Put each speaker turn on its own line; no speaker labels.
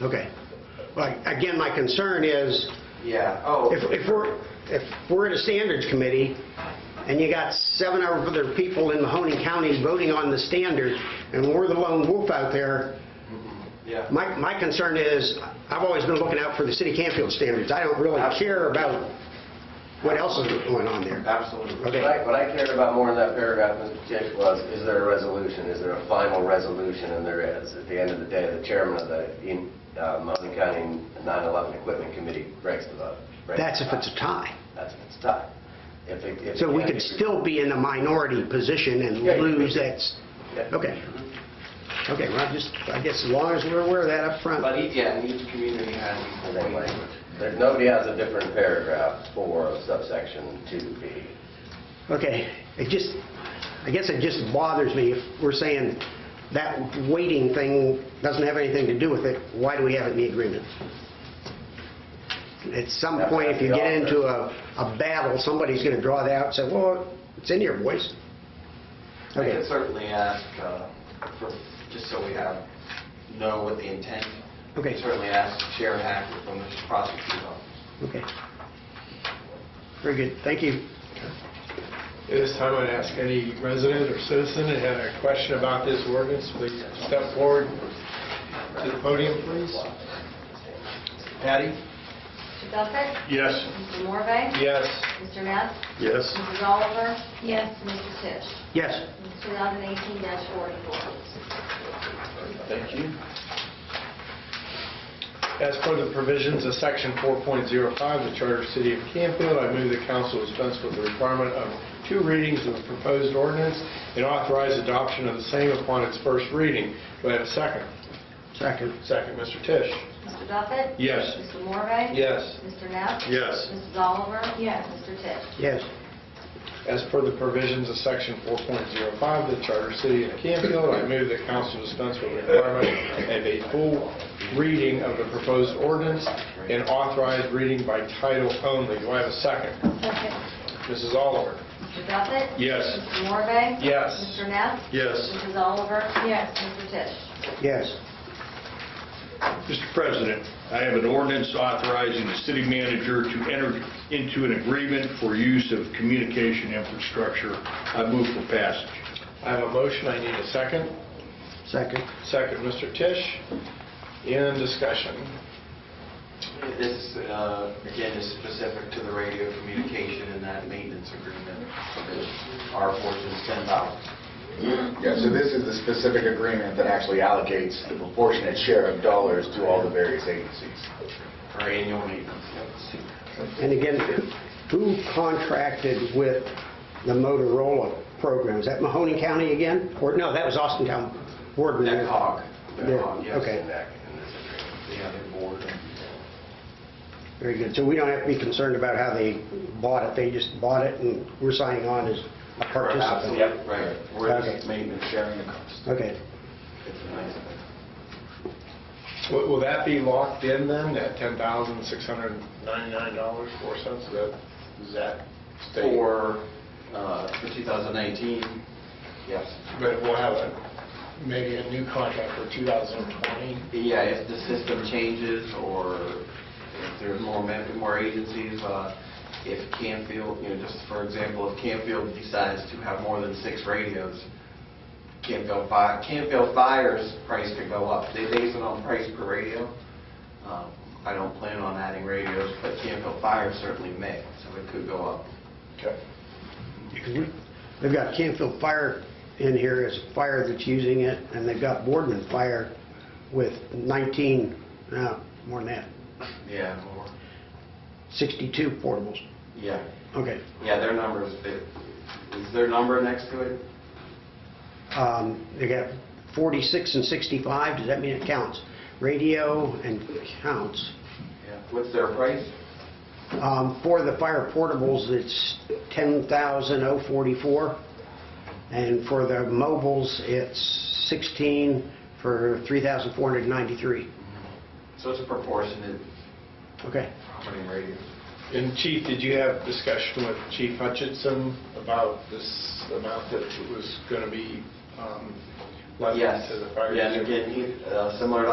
Okay. Well, again, my concern is,
Yeah, oh,
if if we're, if we're at a standards committee, and you got seven other people in Mahoning County voting on the standard, and we're the lone wolf out there,
yeah.
my, my concern is, I've always been looking out for the city Campfield standards. I don't really care about what else is going on there.
Absolutely.
Okay.
What I, what I cared about more in that paragraph, Mr. Chick, was, is there a resolution? Is there a final resolution? And there is. At the end of the day, the chairman of the in- uh, Mountain County 9/11 Equipment Committee breaks the vote. breaks
That's
the
if it's a
tie.
tie.
That's if it's a tie. If it- if-
So we
if-
could still be in a minority position and
Yeah, you could.
lose that, s-
Yeah.
okay. Okay, well, I just, I guess as long as we're aware of that up front.
But each, yeah, each community has
in
equal
that
weight.
language. There's, nobody has a different paragraph for subsection 2B.
Okay, it just, I guess it just bothers me if we're saying that waiting thing doesn't have anything to do with it, why do we have it in the agreement? At some point, if you get into a, a battle, somebody's gonna draw that out and say, well, it's in your voice.
I
Okay,
could certainly ask uh, for, just so we have, know what the intent.
Okay.
Certainly ask Chair Hackett from the prosecutor's office.
okay. Very good, thank you.
At this time, I'd ask any resident or citizen that had a question about this ordinance, please step forward to the podium, please. Patty?
Mr. Duffett?
Yes.
Mr. Morvay?
Yes.
Mr. Neff?
Yes.
Mrs. Oliver? Yes. Mr. Tisch?
Yes,
2018-44.
Thank you. As per the provisions of Section 4.05 of the Charter of the City of Campfield, I move the council dispense with the requirement of two readings of the proposed ordinance and authorize adoption of the same upon its first reading. Do I have a second?
second.
Second, Mr. Tisch.
Mr. Duffett?
Yes.
Mr. Morvay?
Yes.
Mr. Neff?
Yes.
Mrs. Oliver? Yes. Mr. Tisch?
Yes,
As per the provisions of Section 4.05 of the Charter of the City of Campfield, I move that council dispense with the requirement of a full reading of the proposed ordinance and authorize reading by title only. Do I have a second? Mrs. Oliver?
Mr. Duffett?
Yes.
Mr. Morvay?
Yes.
Mr. Neff?
Yes.
Mrs. Oliver? Yes. Mr. Tisch?
yes,
Mr. President, I have an ordinance authorizing the city manager to enter into an agreement for use of communication infrastructure. I move for passage.
I have a motion, I need a second.
second.
Second, Mr. Tisch. In discussion.
This, uh, again, is specific to the radio communication and that maintenance agreement. Our portion is $10.
Yeah, so this is the specific agreement that actually allocates the proportionate share of dollars to all the various agencies.
for annual maintenance. yes.
And again, who contracted with the Motorola program? Is that Mahoney County again? Or, no, that was Austin Town Board.
That cog,
Yeah,
that cog, yes.
okay.
and that- and this agreement, The other board.
Very good. So we don't have to be concerned about how they bought it. They just bought it and we're signing on as a participant.
Absolutely, Right, we're
Okay.
just maintenance sharing the cost.
Okay.
It's a nice thing.
Will will that be locked in then, that $10,699.04? Is that state?
For, uh, for 2019, yes.
But we'll have a, maybe a new contract for 2020.
Yeah, if the system changes or if there's more, mem- more agencies, uh, if Canfield, you know, just for example, if Canfield decides to have more than six radios, Canfield Fi, Canfield Fire's price could go up. They base it on price per radio. Um, I don't plan on adding radios, but Canfield Fire certainly may, so it could go up.
Okay.
They've got Canfield Fire in here as a fire that's using it and they've got Boardman Fire with 19, no, more than that,
Yeah, more.
62 portables.
Yeah,
Okay.
yeah, their number is, is their number next to it?
Um, They got 46 and 65, does that mean it counts? Radio and counts.
Yeah. What's their price?
Um, For the fire portables, it's 10,044, and for the mobiles, it's 16 for 3,493.
So it's a proportionate
Okay.
how many radios?
And Chief, did you have discussion with Chief Hutchinson about this amount that was going to be um, left
Yes.
to the fire?
Yeah, and
district?
again, he- uh, similar to